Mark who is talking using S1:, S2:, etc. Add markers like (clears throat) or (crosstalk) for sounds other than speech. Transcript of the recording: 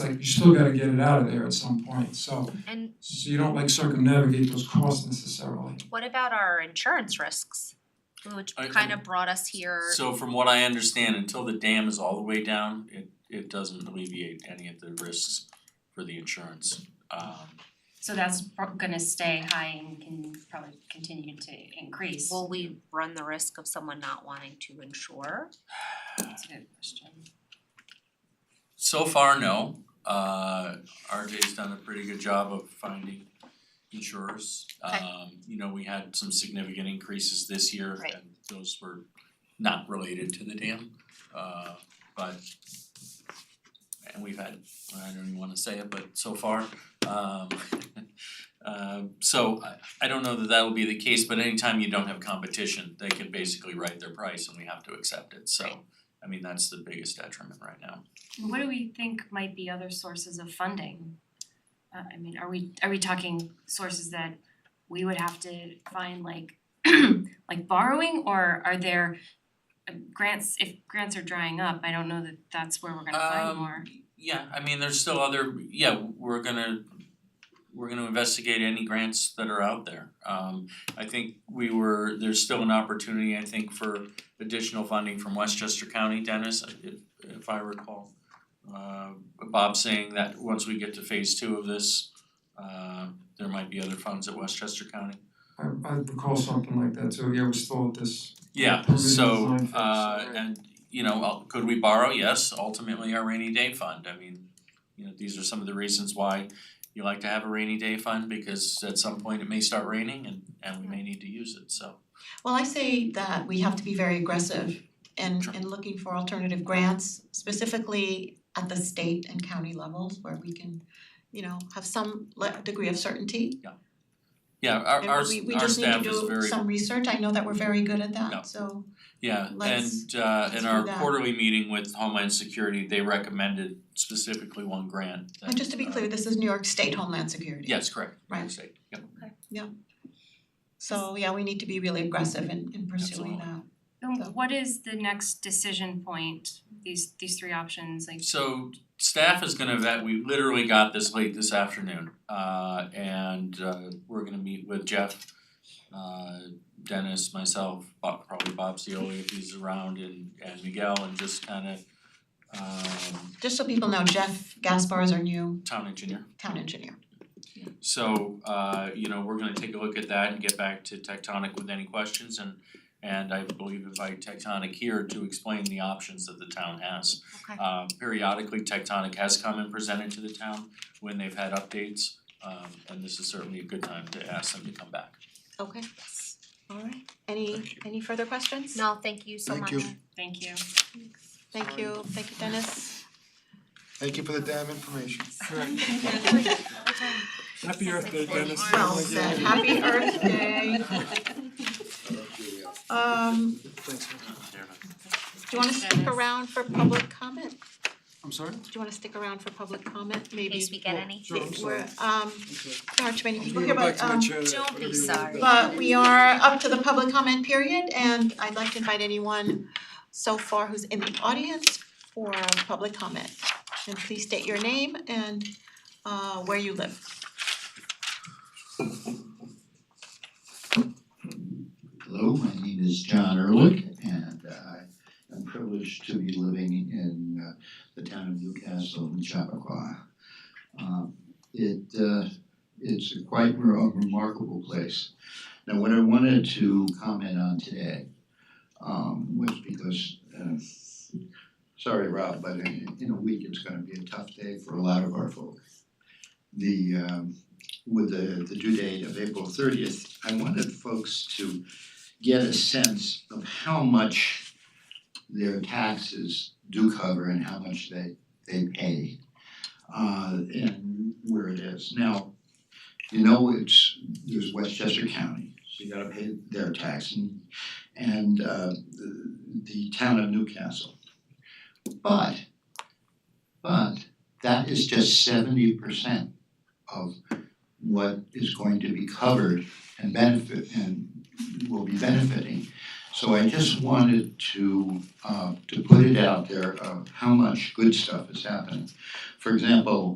S1: like you still gotta get it out of there at some point, so
S2: And
S1: so you don't like circumnavigate those costs necessarily.
S2: what about our insurance risks? Which
S3: I-
S2: kind of brought us here.
S3: So from what I understand, until the dam is all the way down, it it doesn't alleviate any of the risks for the insurance. Um
S4: So that's prob- gonna stay high and can probably continue to increase.
S2: Will we run the risk of someone not wanting to insure?
S4: That's a good question.
S3: so far, no. Uh RJ's done a pretty good job of finding insurers.
S2: Okay.
S3: Um you know, we had some significant increases this year
S2: Right.
S3: and those were not related to the dam. Uh but and we've had, I don't even wanna say it, but so far, um (laughs) um, so I I don't know that that'll be the case, but anytime you don't have competition, they can basically write their price and we have to accept it, so I mean, that's the biggest detriment right now.
S4: What do we think might be other sources of funding? Uh I mean, are we are we talking sources that we would have to find like (clears throat) like borrowing or are there uh, grants, if grants are drying up, I don't know that that's where we're gonna find
S3: Um,
S4: more.
S3: Yeah, I mean, there's still other, yeah, we're gonna we're gonna investigate any grants that are out there. Um I think we were, there's still an opportunity, I think, for additional funding from Westchester County, Dennis, if if I recall. Uh Bob saying that once we get to phase two of this, uh there might be other funds at Westchester County.
S1: I I recall something like that too, yeah, we're still at this,
S3: Yeah,
S1: Permanent
S3: so
S1: design fix,
S3: uh
S1: right.
S3: and you know, uh, could we borrow? Yes, ultimately our rainy day fund. I mean, you know, these are some of the reasons why you like to have a rainy day fund because at some point it may start raining and and we may need to use it, so.
S5: Well, I say that we have to be very aggressive in
S3: Sure.
S5: in looking for alternative grants, specifically at the state and county levels where we can, you know, have some le- degree of certainty.
S3: Yeah, our
S5: And
S3: our
S5: we we
S3: our
S5: just need to
S3: staff is
S5: do
S3: very,
S5: some research, I know that we're very good at
S3: No.
S5: that, so
S3: yeah,
S5: let's-
S3: and uh
S5: let's
S3: in
S5: do
S3: our
S5: that.
S3: quarterly meeting with Homeland Security, they recommended specifically one grant that
S5: and just to be
S3: uh,
S5: clear, this is New York State Homeland Security.
S3: Yes, correct, New York
S5: Right.
S3: State, yep.
S5: So yeah, we need to be really aggressive in in pursuing
S3: Absolutely.
S5: that.
S4: And
S5: So-
S4: what is the next decision point, these these three options, like
S3: So staff is gonna vet, we literally got this late this afternoon, uh and uh we're gonna meet with Jeff, uh Dennis, myself, Bob, probably Bob Seoli if he's around and and Miguel and just kind of um
S5: Just so people know, Jeff Gaspar is our new
S3: town engineer.
S5: town engineer.
S3: So uh you know, we're gonna take a look at that and get back to Tectonic with any questions and and I believe invite Tectonic here to explain the options that the town has.
S2: Okay.
S3: Um periodically Tectonic has come and presented to the town when they've had updates. Um and this is certainly a good time to ask them to come back.
S5: Okay, all right, any any further questions?
S2: No, thank you so much.
S6: Thank you.
S4: Thank you.
S5: Thank you, thank you, Dennis.
S6: Thank you for the damn information.
S7: Happy Earth Day, Dennis.
S5: Well said, (laughs) happy Earth Day. (laughs) Um,
S6: Thanks.
S5: do you wanna stick around for public comment?
S6: I'm sorry?
S5: Do you wanna stick around for public comment,
S2: In
S5: maybe?
S2: case we get any.
S6: Sure, I'm sorry.
S5: We're, um, there aren't too many people here,
S6: I'm gonna
S5: but
S6: go back to my
S5: um,
S6: chair.
S2: Don't be
S6: Whatever you want.
S2: sorry.
S5: but we are up to the public comment period and I'd like to invite anyone so far who's in the audience for public comment. And please state your name and uh where you live.
S8: Hello, my name is John Ehrlich, and I am privileged to be living in uh, the town of Newcastle in Chappaqua. Um, It, uh, it's a quite re- remarkable place. Now, what I wanted to comment on today um, was because, uh, sorry, Rob, but in in a week, it's gonna be a tough day for a lot of our folk. The, um, with the the due date of April thirtieth, I wanted folks to get a sense of how much their taxes do cover and how much they they pay uh and where it is. Now, you know, it's there's Westchester County, so you gotta pay their tax and and uh the the town of Newcastle. But but that is just seventy percent of what is going to be covered and benefit and will be benefiting So I just wanted to uh to put it out there of how much good stuff is happening. For example,